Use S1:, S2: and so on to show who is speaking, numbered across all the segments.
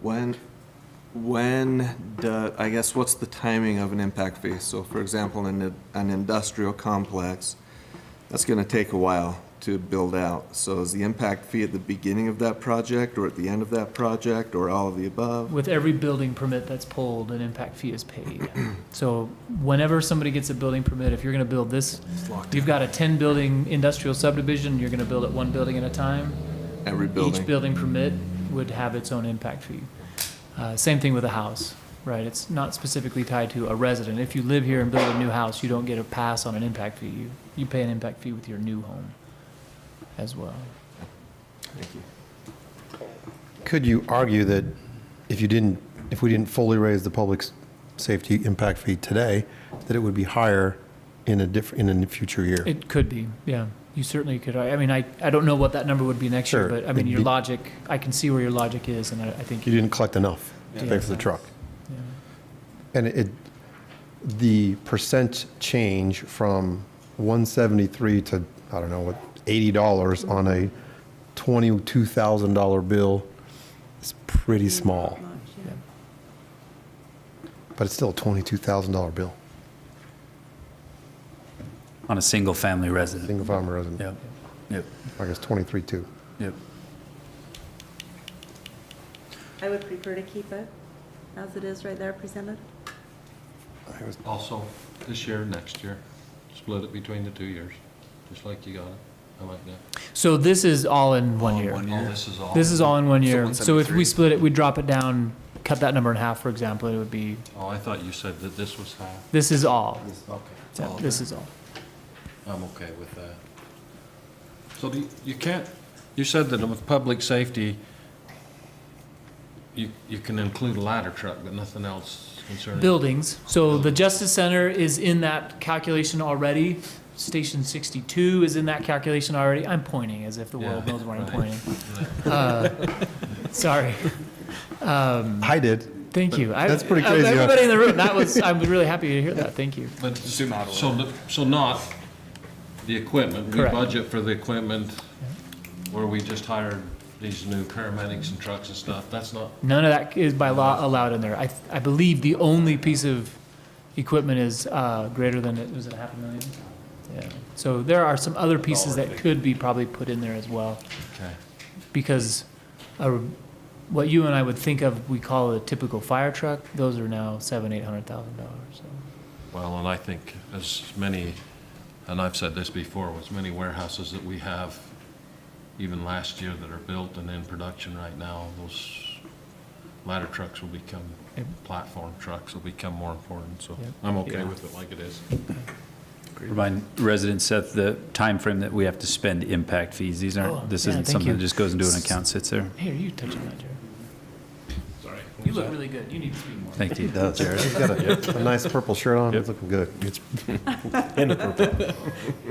S1: When, when, do- I guess, what's the timing of an impact fee? So for example, in a- an industrial complex, that's going to take a while to build out. So is the impact fee at the beginning of that project, or at the end of that project, or all of the above?
S2: With every building permit that's pulled, an impact fee is paid. So whenever somebody gets a building permit, if you're gonna build this, you've got a ten building industrial subdivision, you're gonna build it one building at a time.
S1: Every
S2: Each
S1: building?
S2: building permit would have its own impact fee. Uh, same thing with a house, right? It's not specifically tied to a resident. If you live here and build a new house, you don't get a pass on an impact fee. You, you pay an impact fee with your new home as well.
S1: Thank you.
S3: Could you argue that if you didn't, if we didn't fully raise the public's safety impact fee today, that it would be higher in a diff, in a future year?
S2: It could be, yeah. You certainly could. I, I mean, I, I don't know what that number would be next year,
S3: Sure.
S2: but I mean,
S3: It'd
S2: your
S3: be-
S2: logic, I can see where your logic is, and I, I think,
S3: You didn't collect enough to pay for the
S2: Yeah.
S3: truck.
S2: yeah.
S3: And it, the percent change from 173 to, I don't know, what, $80 on a $22,000 bill is pretty small, but it's still a $22,000 bill,
S4: on a single-family resident.
S3: single family resident.
S4: Yep, yep,
S3: I guess 23.2.
S4: yep.
S5: I would prefer to keep it as it is right there presented.
S6: Also, this year, next year, split it between the two years, just like you got it. I like that.
S2: So this is all in one year.
S6: All this is all.
S2: This is all in one
S7: So
S2: year. So if we
S7: 173.
S2: split it, we drop it down, cut that number in half, for example, it would be,
S6: Oh, I thought you said that this was half.
S2: this is all.
S6: Okay.
S2: Yeah,
S6: all
S2: This
S6: of
S2: is all.
S6: it. I'm okay with that. So do you, you can't, you said that with public safety, you, you can include a ladder truck, but nothing else concerning.
S2: Buildings, so the Justice Center is in that calculation already. Station sixty-two is in that calculation already. I'm pointing as if the world
S6: Yeah,
S2: knows where I'm
S6: right.
S2: pointing. Uh, Sorry.
S3: I did.
S2: Thank you. I-
S3: That's pretty
S2: I-
S3: crazy, huh?
S2: Everybody in the room, that was, I'm really happy to hear that. Thank you.
S6: But, so, the- so not the equipment, we
S2: Correct.
S6: budget for the equipment where we just hired these new paramedics and trucks and stuff, that's not,
S2: None of that is by law allowed in there. I, I believe the only piece of equipment is uh, greater than, was it a half a million? Yeah. So there are some other pieces that could be probably put in there as well,
S6: okay.
S2: because uh, what you and I would think of, we call a typical fire truck, those are now seven, eight hundred thousand dollars, so.
S6: Well, and I think as many, and I've said this before, with many warehouses that we have, even last year that are built and in production right now, those ladder trucks will become,
S2: Yep.
S6: platform trucks will become more important, so
S2: Yep.
S6: I'm okay
S2: Yeah.
S6: with it like it is.
S4: Remind residents, Seth, the time frame that we have to spend impact fees. These
S2: Oh,
S4: aren't, this
S2: yeah,
S4: isn't
S2: thank
S4: something
S2: you.
S4: that just goes into an account, sits there.
S2: Here, you touch on that, Jared. Sorry. You look really good, you need to speak more.
S4: Thank you. Does,
S3: He's got a, a nice purple shirt on. It's
S8: Yep.
S3: looking good. It's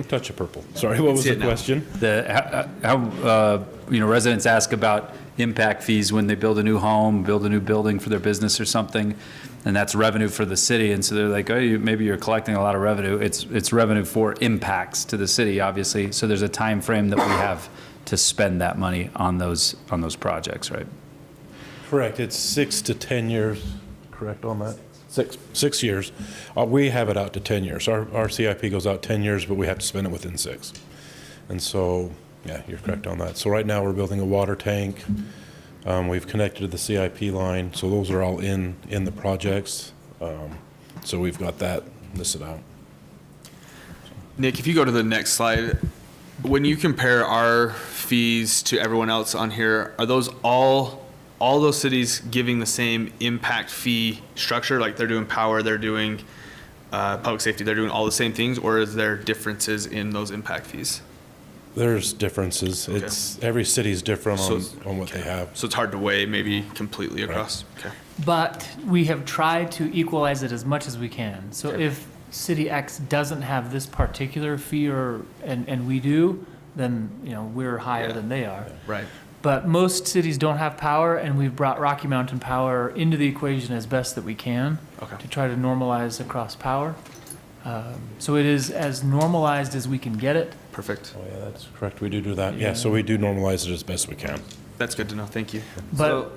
S8: Touch of purple. Sorry, what was the question?
S4: The, how, how, uh, you know, residents ask about impact fees when they build a new home, build a new building for their business or something, and that's revenue for the city, and so they're like, oh, you, maybe you're collecting a lot of revenue. It's, it's revenue for impacts to the city, obviously, so there's a time frame that we have to spend that money on those, on those projects, right?
S8: Correct, it's six to 10 years. Correct on that? Six, six years. Uh, We have it out to 10 years. Our, our CIP goes out 10 years, but we have to spend it within six. And so, yeah, you're correct on that. So right now, we're building a water tank. Um, We've connected to the CIP line, so those are all in, in the projects. Um, So we've got that listed out.
S7: Nick, if you go to the next slide, when you compare our fees to everyone else on here, are those all, all those cities giving the same impact fee structure? Like they're doing power, they're doing uh, public safety, they're doing all the same things? Or is there differences in those impact fees?
S8: There's differences. It's, every city's different
S7: So
S8: on,
S7: it's-
S8: on what they have.
S7: So it's hard to weigh maybe completely across? Okay.
S2: But we have tried to equalize it as much as we can. So if city X doesn't have this particular fee or, and, and we do, then, you know, we're higher
S7: Yeah.
S2: than they are.
S7: Right.
S2: But most cities don't have power and we've brought Rocky Mountain Power into the equation as best that we can
S7: Okay.
S2: to try to normalize across power. Um, So it is as normalized as we can get it.
S7: Perfect.
S8: Oh, yeah, that's correct. We do do that. Yeah, so we do normalize it as best we can.
S7: That's good to know. Thank you.
S2: But